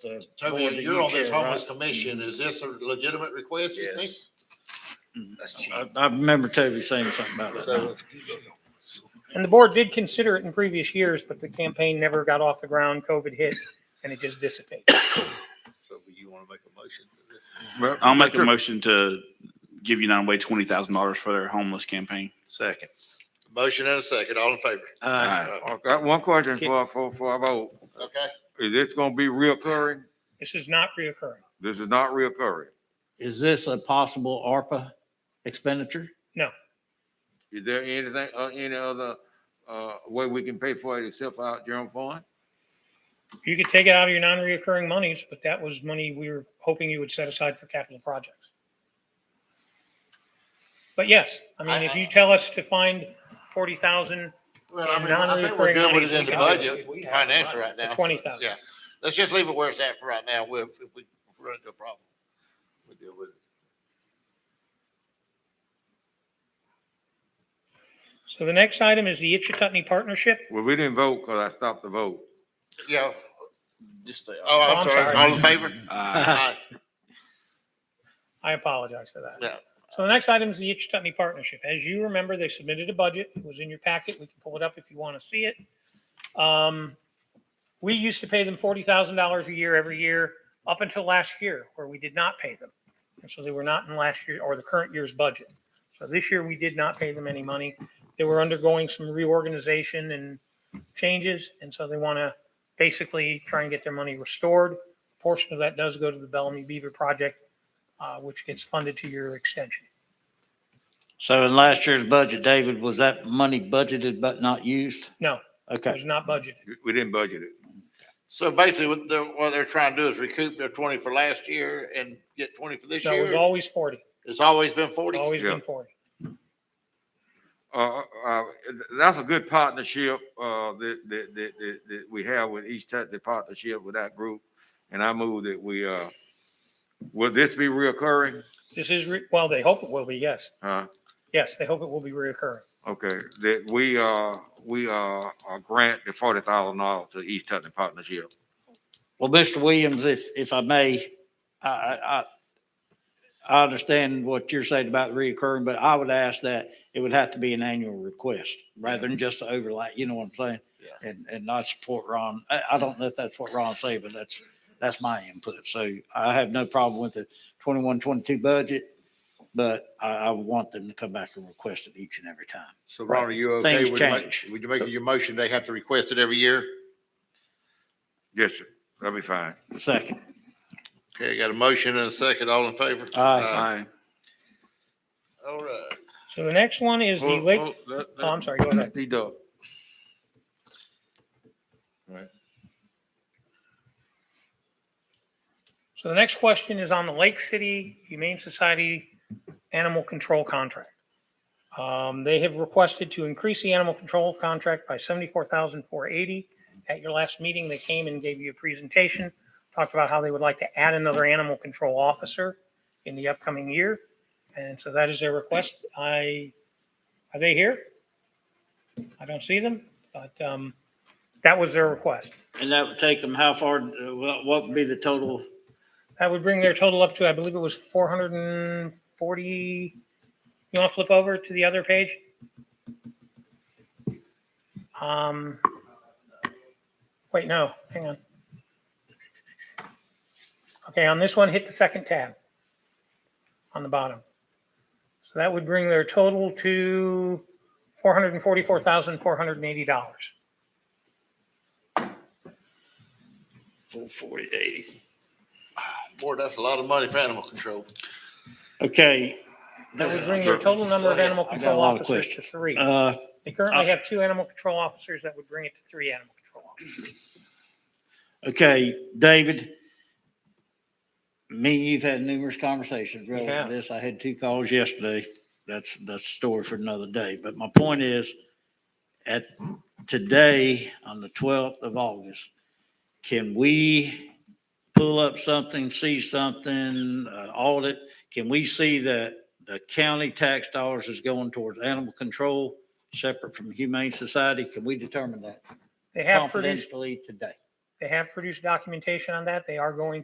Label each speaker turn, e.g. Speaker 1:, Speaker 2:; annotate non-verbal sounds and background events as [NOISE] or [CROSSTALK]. Speaker 1: the.
Speaker 2: Tony,
Speaker 1: board that
Speaker 2: you're
Speaker 1: you
Speaker 2: on this
Speaker 1: chair,
Speaker 2: homeless
Speaker 1: right?
Speaker 2: commission. Is this a legitimate request, you think?
Speaker 3: Yes. That's cheap.
Speaker 1: I, I remember Toby saying something about that.
Speaker 2: So, uh,
Speaker 4: And the board did consider it in previous years, but the campaign never got off the ground. COVID hit and it just dissipated.
Speaker 2: so you want to make a motion for this?
Speaker 5: I'll make a motion to give United Way twenty thousand dollars for their homeless campaign.
Speaker 3: Second.
Speaker 2: Motion and a second, all in favor?
Speaker 1: Uh,
Speaker 5: Aye.
Speaker 2: Uh,
Speaker 6: I got one question for, for, for, about,
Speaker 2: Okay,
Speaker 6: is this gonna be reoccurring?
Speaker 4: This is not reoccurring.
Speaker 6: This is not reoccurring.
Speaker 1: Is this a possible ARPA expenditure?
Speaker 6: Is there anything, uh, any other, uh, way we can pay for it except for our general fund?
Speaker 4: You could take it out of your non-reoccurring monies, but that was money we were hoping you would set aside for capital projects. But yes, I mean, if you tell us to find forty thousand,
Speaker 2: well, I mean, I think we're good with it in the budget, financial right now. so,
Speaker 4: 20,000.
Speaker 2: Yeah, let's just leave it where it's at for right now. We'll, if we run into a problem, we'll deal with it.
Speaker 4: so the next item is the Itchituttony Partnership.
Speaker 6: Well, we didn't vote because I stopped the vote.
Speaker 2: Yeah,
Speaker 5: Just say,
Speaker 2: oh,
Speaker 4: Oh,
Speaker 2: I'm
Speaker 4: I'm
Speaker 2: sorry,
Speaker 4: sorry.
Speaker 2: all in favor?
Speaker 5: uh,
Speaker 2: Aye.
Speaker 4: I apologize for that.
Speaker 2: Yeah.
Speaker 4: So the next item is the Itchituttony Partnership. As you remember, they submitted a budget. It was in your packet. We can pull it up if you want to see it. Um, we used to pay them forty thousand dollars a year every year up until last year where we did not pay them. And so they were not in last year or the current year's budget. So this year we did not pay them any money. They were undergoing some reorganization and changes. And so they want to basically try and get their money restored. A Portion of that does go to the Bellamy Beaver Project uh, which gets funded to your extension.
Speaker 1: [LAUGHS] So in last year's budget, David, was that money budgeted but not used?
Speaker 4: No, it
Speaker 1: Okay.
Speaker 4: was not budgeted.
Speaker 6: We- We didn't budget it.
Speaker 2: So basically, what they're, what they're trying to do is recoup their twenty for last year and get twenty for this
Speaker 4: No, it was
Speaker 2: year.
Speaker 4: always 40.
Speaker 2: It's always been
Speaker 4: It's
Speaker 2: forty.
Speaker 4: always
Speaker 6: Yeah.
Speaker 4: been 40.
Speaker 6: Uh, uh, that's a good partnership, uh, that, that, that, that, that we have with each Tech, the partnership with that group. And I move that we, uh, will this be reoccurring?
Speaker 4: This is, re- well, they hope it will be, yes.
Speaker 6: Huh?
Speaker 4: Yes, they hope it will be reoccurring.
Speaker 6: Okay, that we, uh, we, uh, uh, grant the forty thousand dollars to East Tutton Partnership.
Speaker 1: Well, Mr. Williams, if, if I may, I, I, I- I understand what you're saying about reoccurring, but I would ask that it would have to be an annual request rather than just overlay, you know what I'm saying?
Speaker 2: Yeah.
Speaker 1: And, and not support Ron. I, I don't know if that's what Ron said, but that's, that's my input. So I have no problem with the 21, 22 budget, but I, I want them to come back and request it each and every time.
Speaker 2: So Ron, are you okay
Speaker 1: Things
Speaker 2: with, ma-
Speaker 1: change.
Speaker 2: would you make your motion, they have to request it every year?
Speaker 6: Yes, sir. That'll be fine.
Speaker 1: Second.
Speaker 2: Okay, got a motion and a second, all in favor?
Speaker 1: Aye.
Speaker 5: aye.
Speaker 2: All right.
Speaker 4: So the next one is the
Speaker 6: Hold-
Speaker 4: Lake,
Speaker 6: hold- let-
Speaker 4: oh, I'm
Speaker 6: let-
Speaker 4: sorry, go ahead.
Speaker 6: D Dub.
Speaker 4: So the next question is on the Lake City Humane Society Animal Control Contract. Um, they have requested to increase the animal control contract by seventy-four thousand four eighty. At your last meeting, they came and gave you a presentation, talked about how they would like to add another animal control officer in the upcoming year. And so that is their request. I, are they here? I don't see them, but, um, that was their request.
Speaker 1: And that would take them how far, uh, what what would be the total?
Speaker 4: That would bring their total up to, I believe it was four hundred and forty. You want to flip over to the other page? Um, wait, no, hang on. Okay, on this one, hit the second tab on the bottom. So that would bring their total to four hundred and forty-four thousand, four hundred and eighty dollars.
Speaker 1: Full 40, 80.
Speaker 2: Boy, that's a lot of money for animal control.
Speaker 1: Okay.
Speaker 4: That would bring their total number of animal
Speaker 1: I got a
Speaker 4: control
Speaker 1: lot of
Speaker 4: officers to
Speaker 1: questions.
Speaker 4: three.
Speaker 1: Uh,
Speaker 4: They currently
Speaker 1: Uh,
Speaker 4: have two animal control officers that would bring it to three animal control officers.
Speaker 1: okay, David. Me and you've had numerous conversations relative
Speaker 4: Yeah.
Speaker 1: to this. I had two calls yesterday. That's, that's a story for another day. But my point is, at today, on the twelfth of August, can we pull up something, see something, uh, audit? Can we see that the county tax dollars is going towards animal control, separate from Humane Society? Can we determine that?
Speaker 4: They have produced,
Speaker 1: confidentially today.
Speaker 4: They have produced documentation on that. They are going